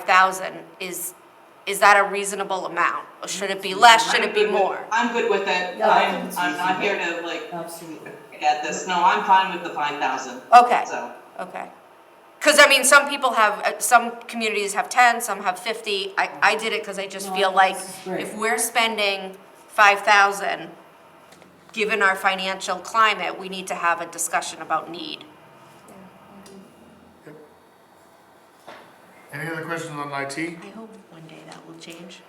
5,000 is, is that a reasonable amount? Or should it be Mm-hmm. less, should it be I'm good with- more? I'm good with it, Yeah, I'm, it's I'm not easy. here to like Absolutely. get this, no, I'm fine with the five thousand, Okay, so. okay. Because I mean, some people have, uh, some communities have 10, some have 50. I, I did it because I just No, feel this like is great. if we're spending 5,000, given our financial climate, we need to have a discussion about need. Any other questions on IT? I hope one day that will change.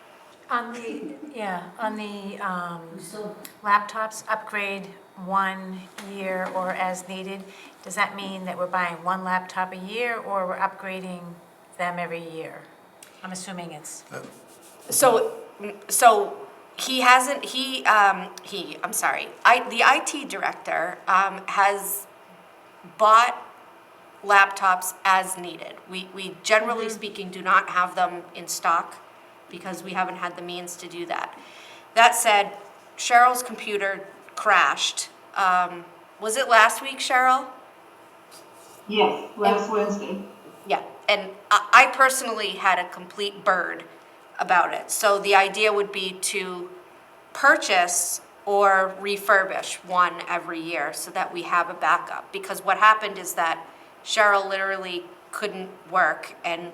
On the, yeah, on the um, We still, laptops, upgrade one year or as needed, does that mean that we're buying one laptop a year or we're upgrading them every year? I'm assuming it's, So, so he hasn't, he, um, he, I'm sorry, I, the IT director, um, has bought laptops as needed. We, we generally speaking do not have them in stock because we haven't had the means to do that. That said, Cheryl's computer crashed. Um, was it last week, Cheryl? Yes, last Wednesday. Yeah, and I, I personally had a complete bird about it. So the idea would be to purchase or refurbish one every year so that we have a backup. Because what happened is that Cheryl literally couldn't work and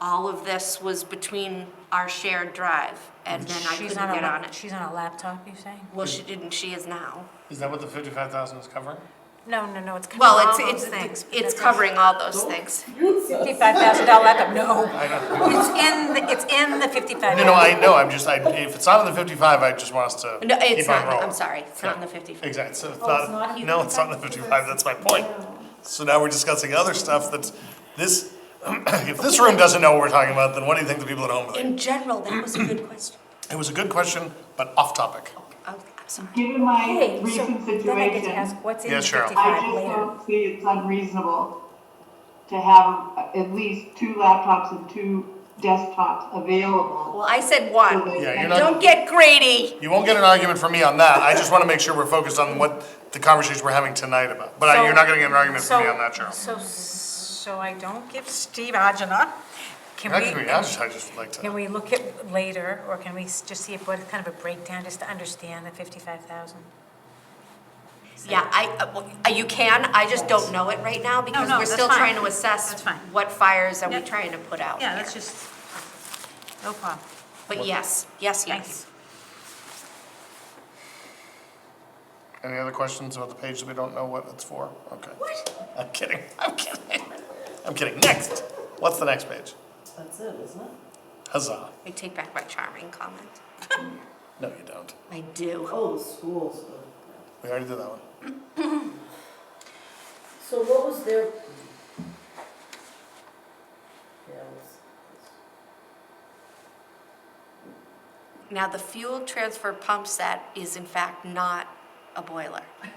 all of this was between our shared drive and then I she's couldn't on a, get on lap- it. she's on a laptop, you're saying? Well, she didn't, she is now. Is that what the fifty-five thousand is covering? No, no, no, it's covering Well, it's, all those things. it's, but it's that's- covering all those things. Fifty-five thousand dollar laptop, no, I know. it's in, the- it's in the fifty-five. No, no, I know, I'm just, I, if it's not on the fifty-five, I just want us to No, it's keep on not, rolling. I'm sorry, it's not in the fifty. Exactly, so it's it's not not, even no, it's not on the fifty-five, that's my point. So now we're discussing other stuff that's, this, if this room doesn't know what we're talking about, then what do you think the people at home think? In general, that was a good question. It was a good question, but off topic. Oh, I'm sorry. Given my Hey, so recent then I get to ask, situation, what's in Yeah, the Cheryl. I fifty-five just later? don't see it's unreasonable to have at least two laptops and two desktops available. Well, I said one. Yeah, you're Don't not, get greedy. you won't get an argument from me on that, I just wanna make sure we're focused on what the conversations we're having tonight about. But I- you're not gonna get an argument from me on that, Cheryl. So, so I don't give Steve agina. Can we? Actually, I just, I just like Can to, we look at later, or can we s- just see if, what kind of a breakdown, just to understand the 55,000? Yeah, I, uh, well, uh, you can, I just don't know it right now because no, we're that's still fine. trying to assess That's fine. what fires are we Yep. trying to put out Yeah, here. that's just, no problem. But yes, yes, Thank yes. you. any other questions about the page that we don't know what it's for? Okay. What? I'm kidding. I'm kidding. I'm kidding. Next. What's the next page? that's it, isn't it? Huzzah. I take back my charming comment. No, you don't. I do. Oh, the schools. oh. We already did that one. So what was their? Yeah, it was- Now, the fuel transfer pump set is in fact not a boiler.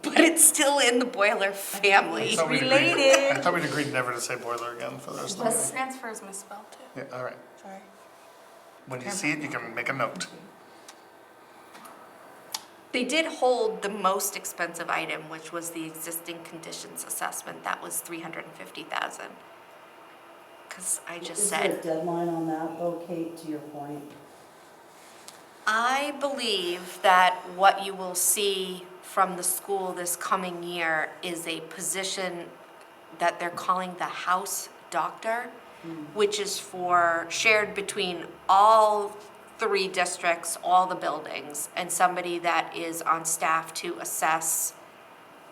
But it's still in the boiler family. thought we'd agreed- related. I thought we'd agreed never to say boiler again for the rest of the meeting. Transfer is misspelled too, Yeah, all right. sorry. When you see it, you can make a note. They did hold the most expensive item, which was the existing conditions assessment, that was three hundred and fifty thousand. Cause I just Is there a said, deadline on that though, Kate, to your point? I believe that what you will see from the school this coming year is a position that they're calling the house doctor, which is for, shared between all three districts, all the buildings, and somebody that is on staff to assess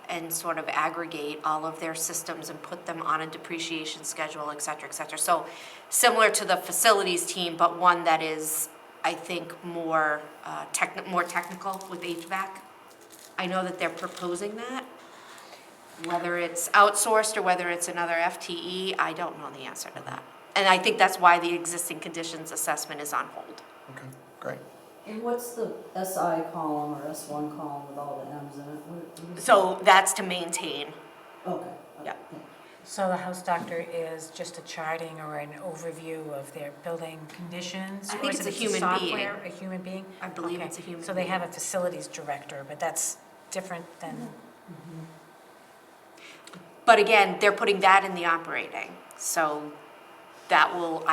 and sort of aggregate all of their systems and put them on a depreciation schedule, et cetera, et cetera. So similar to the facilities team, but one that is, I think, more uh, techni- more technical with HVAC. I know that they're proposing that. Whether it's outsourced or whether it's another FTE, I don't know the answer to that. And I think that's why the existing conditions assessment is on hold. Okay, great. And what's the SI column or S one column with all the Ms in it? What- what is- So that's to maintain. Okay. Yeah. okay. So the house doctor is just a charting or an overview of their building conditions? I or think is it's it a human being. software, A human being? I believe Okay, it's a human So they being. have a facilities director, but that's different than, But again, they're putting that in the operating, so that will,